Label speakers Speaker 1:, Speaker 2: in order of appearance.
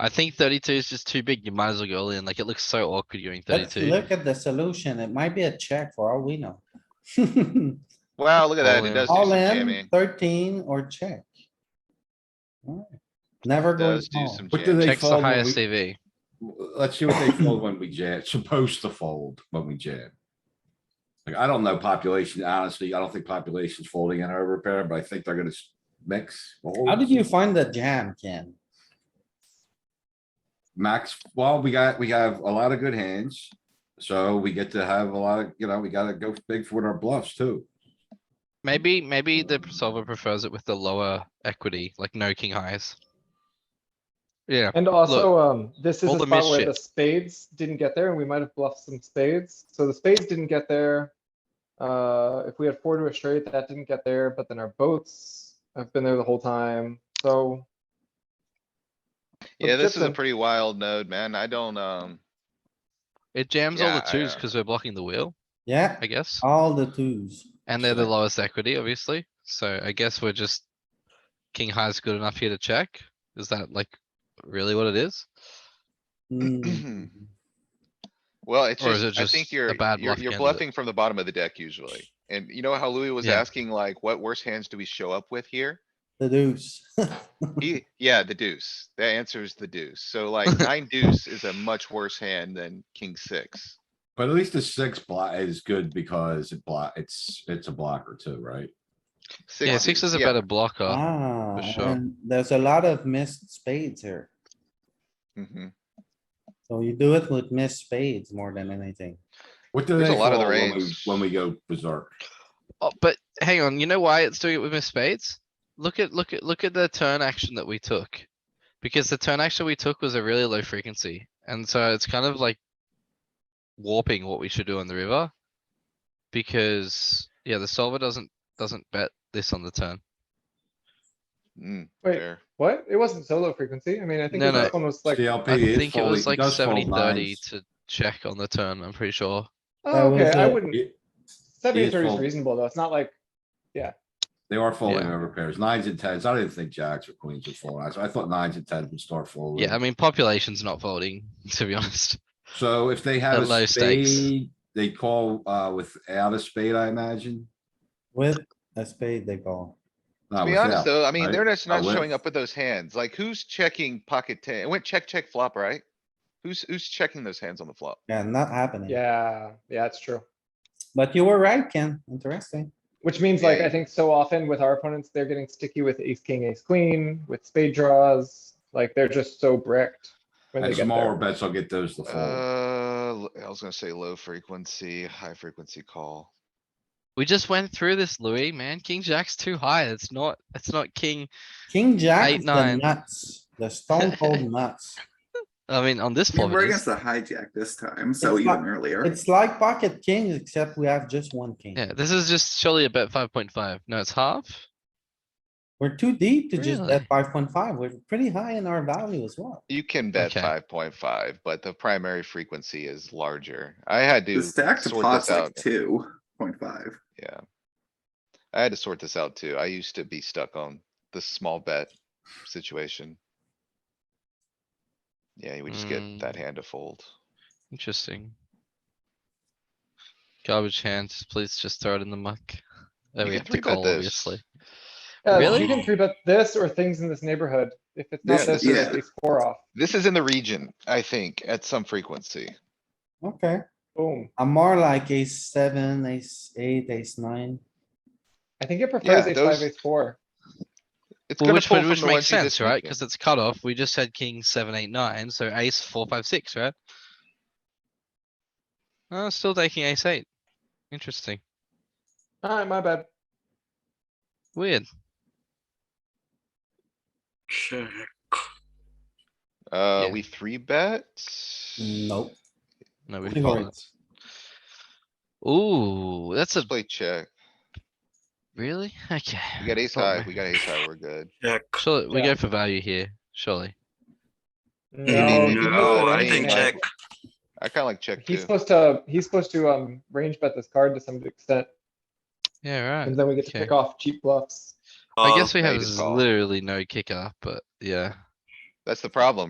Speaker 1: I think thirty-two is just too big. You might as well go all in. Like it looks so awkward going
Speaker 2: Let's
Speaker 1: thirty-two.
Speaker 2: look at the solution. It might be a check for all we know.
Speaker 3: Wow, look at
Speaker 1: All
Speaker 3: that. It
Speaker 1: in.
Speaker 3: does do some
Speaker 2: All in
Speaker 3: jamming.
Speaker 2: thirteen or check. Alright, Never going
Speaker 3: Does do
Speaker 2: small.
Speaker 3: some
Speaker 4: What do
Speaker 3: jamming.
Speaker 4: they-
Speaker 1: Checks the
Speaker 4: fold when
Speaker 1: highest
Speaker 4: we-
Speaker 1: CV.
Speaker 4: Let's see what they fold when we jam, supposed to fold when we jam. Like, I don't know population, honestly, I don't think population's folding in our repair, but I think they're gonna s- mix.
Speaker 2: How did you find the jam, Ken?
Speaker 4: Max, well, we got, we have a lot of good hands, so we get to have a lot of, you know, we gotta go big for our bluffs too.
Speaker 1: Maybe, maybe the solver prefers it with the lower equity, like no king highs. Yeah,
Speaker 5: And also, um, this is
Speaker 1: all
Speaker 5: a
Speaker 1: the
Speaker 5: spot where the
Speaker 1: mischief.
Speaker 5: spades didn't get there and we might have bluffed some spades. So the spades didn't get there. Uh, if we had four to a straight, that didn't get there, but then our boats have been there the whole time. So
Speaker 3: Yeah, this is
Speaker 5: dip
Speaker 3: a
Speaker 5: them.
Speaker 3: pretty wild node, man. I don't, um,
Speaker 1: it jams all the
Speaker 3: Yeah, I,
Speaker 1: twos
Speaker 3: uh,
Speaker 1: because we're blocking the wheel,
Speaker 2: Yeah,
Speaker 1: I guess.
Speaker 2: all the twos.
Speaker 1: And they're the
Speaker 4: Sure.
Speaker 1: lowest equity, obviously. So I guess we're just king high is good enough here to check. Is that like really what it is?
Speaker 2: Hmm,
Speaker 3: well, it's
Speaker 1: Or is it
Speaker 3: just, I
Speaker 1: just
Speaker 3: think
Speaker 1: a
Speaker 3: you're,
Speaker 1: bad
Speaker 3: you're,
Speaker 1: bluff
Speaker 3: you're
Speaker 1: candidate?
Speaker 3: bluffing from the bottom of the deck usually. And you know how Louis was
Speaker 1: Yeah.
Speaker 3: asking like, what worse hands do we show up with here?
Speaker 2: The deuce.
Speaker 3: He, yeah, the deuce. The answer is the deuce. So like nine deuce is a much worse hand than king six.
Speaker 4: But at least the six block is good because it block, it's, it's a blocker too, right?
Speaker 1: Yeah, six
Speaker 3: deuce,
Speaker 1: is a
Speaker 3: yeah.
Speaker 1: better blocker.
Speaker 2: Ah,
Speaker 1: sure.
Speaker 2: and there's a lot of missed spades here.
Speaker 3: Mhm.
Speaker 2: So you do it with missed spades more than anything.
Speaker 4: What do
Speaker 3: There's
Speaker 4: they
Speaker 3: a lot of the
Speaker 4: fold when we-
Speaker 3: range.
Speaker 4: when we go berserk?
Speaker 1: Oh, but hang on, you know why it's doing it with Miss Spades? Look at, look at, look at the turn action that we took. Because the turn action we took was a really low frequency, and so it's kind of like warping what we should do on the river. Because, yeah, the solver doesn't, doesn't bet this on the turn.
Speaker 3: Mm,
Speaker 5: wait,
Speaker 3: fair.
Speaker 5: what? It wasn't solo frequency. I mean, I think
Speaker 1: No, no.
Speaker 5: this one was like,
Speaker 4: CLP
Speaker 1: I
Speaker 4: is
Speaker 1: think it
Speaker 4: folding-
Speaker 1: was like
Speaker 4: does fold
Speaker 1: 70 30
Speaker 4: nines.
Speaker 1: to check on the turn, I'm pretty sure.
Speaker 5: oh,
Speaker 2: That was
Speaker 5: okay, I
Speaker 2: it.
Speaker 5: wouldn't,
Speaker 4: It-
Speaker 5: seventy
Speaker 4: is
Speaker 5: thirty is
Speaker 4: full.
Speaker 5: reasonable though. It's not like,
Speaker 4: They are folding
Speaker 1: Yeah.
Speaker 4: over pairs, nines and tens. I didn't think jacks or queens would fold. I, I thought nines and tens would start folding.
Speaker 1: Yeah, I mean, population's not folding, to be honest.
Speaker 4: So if they have
Speaker 1: At low
Speaker 4: a
Speaker 1: stakes.
Speaker 4: spade, they call, uh, without a spade, I imagine.
Speaker 2: With a spade, they call.
Speaker 4: Not
Speaker 3: To be
Speaker 4: without.
Speaker 3: honest though, I mean,
Speaker 4: right?
Speaker 3: they're just
Speaker 4: I
Speaker 3: not
Speaker 4: went-
Speaker 3: showing up with those hands. Like who's checking pocket ten? It went check, check, flop, right? Who's, who's checking those hands on the flop?
Speaker 2: Yeah, not happening.
Speaker 5: yeah, yeah, it's true.
Speaker 2: But you were right, Ken. Interesting.
Speaker 5: Which means like,
Speaker 3: Yeah.
Speaker 5: I think so often with our opponents, they're getting sticky with ace, king, ace, queen, with spade draws, like they're just so bricked. when they
Speaker 4: And
Speaker 5: get there.
Speaker 4: smaller bets, I'll get those to fold.
Speaker 3: Uh, l- I was gonna say low frequency, high frequency call.
Speaker 1: We just went through this, Louis, man. King Jack's too high. It's not, it's not king.
Speaker 2: King jack
Speaker 1: Eight,
Speaker 2: is the
Speaker 1: nine.
Speaker 2: nuts, the stone cold nuts.
Speaker 1: I mean, on this
Speaker 6: You
Speaker 1: flop,
Speaker 6: were
Speaker 1: it is.
Speaker 6: against the hijack this time, so
Speaker 2: It's
Speaker 6: even
Speaker 2: not-
Speaker 6: earlier.
Speaker 2: It's like pocket kings, except we have just one king.
Speaker 1: yeah, this is just surely a bet five point five. No, it's half.
Speaker 2: We're too deep to just bet
Speaker 1: Really?
Speaker 2: five point five. We're pretty high in our value as well.
Speaker 3: You can bet
Speaker 1: Okay.
Speaker 3: five point five, but the primary frequency is larger. I had to
Speaker 6: The stack
Speaker 3: sort
Speaker 6: to
Speaker 3: this
Speaker 6: pot's like
Speaker 3: out.
Speaker 6: two point five.
Speaker 3: Yeah. I had to sort this out too. I used to be stuck on the small bet situation. Yeah, we just get that
Speaker 1: Mm.
Speaker 3: hand to fold.
Speaker 1: Interesting. Garbage hands, please just throw it in the muck. There we
Speaker 3: You can
Speaker 1: have to
Speaker 3: three bet
Speaker 1: call,
Speaker 3: this.
Speaker 1: obviously.
Speaker 5: Yeah,
Speaker 1: Really?
Speaker 5: Uh, You can three bet this or things in this neighborhood. If it's not
Speaker 3: This-
Speaker 5: this, it's
Speaker 6: yeah.
Speaker 5: at least four off.
Speaker 3: This is in the region, I think, at some frequency.
Speaker 2: Okay,
Speaker 5: Boom.
Speaker 2: I'm more like ace seven, ace eight, ace nine.
Speaker 5: I think it prefers
Speaker 3: Yeah,
Speaker 5: ace five,
Speaker 3: those-
Speaker 5: ace four.
Speaker 3: It's
Speaker 1: Well,
Speaker 3: gonna
Speaker 1: which
Speaker 3: pull
Speaker 1: would,
Speaker 3: from
Speaker 1: which
Speaker 3: the ones
Speaker 1: makes
Speaker 3: you just
Speaker 1: sense, right?
Speaker 3: mentioned.
Speaker 1: Cuz it's cut off. We just had king seven, eight, nine, so ace four, five, six, right? Uh, still taking ace eight. Interesting.
Speaker 5: Alright, my bad.
Speaker 1: Weird.
Speaker 3: Uh,
Speaker 1: yeah.
Speaker 3: Uh, we three bet?
Speaker 2: Nope.
Speaker 1: No, we
Speaker 2: Three
Speaker 1: fold
Speaker 2: hearts.
Speaker 1: it. Ooh, that's a,
Speaker 3: Let's play check.
Speaker 1: really? Okay.
Speaker 3: We got ace
Speaker 1: Thought
Speaker 3: high, we got ace high, we're good.
Speaker 1: Surely, we
Speaker 5: Yeah.
Speaker 1: go for value here, surely.
Speaker 6: Mm,
Speaker 5: No, he's supposed to
Speaker 3: I
Speaker 5: range
Speaker 3: think
Speaker 5: bet.
Speaker 3: I kinda like check
Speaker 5: He's
Speaker 3: too.
Speaker 5: supposed to, he's supposed to, um, range bet this card to some extent,
Speaker 1: Yeah, right.
Speaker 5: and then we get to
Speaker 1: okay.
Speaker 5: pick off cheap bluffs.
Speaker 1: I guess we
Speaker 3: yeah,
Speaker 1: have
Speaker 3: you just call.
Speaker 1: literally no kicker, but yeah.
Speaker 3: That's the problem,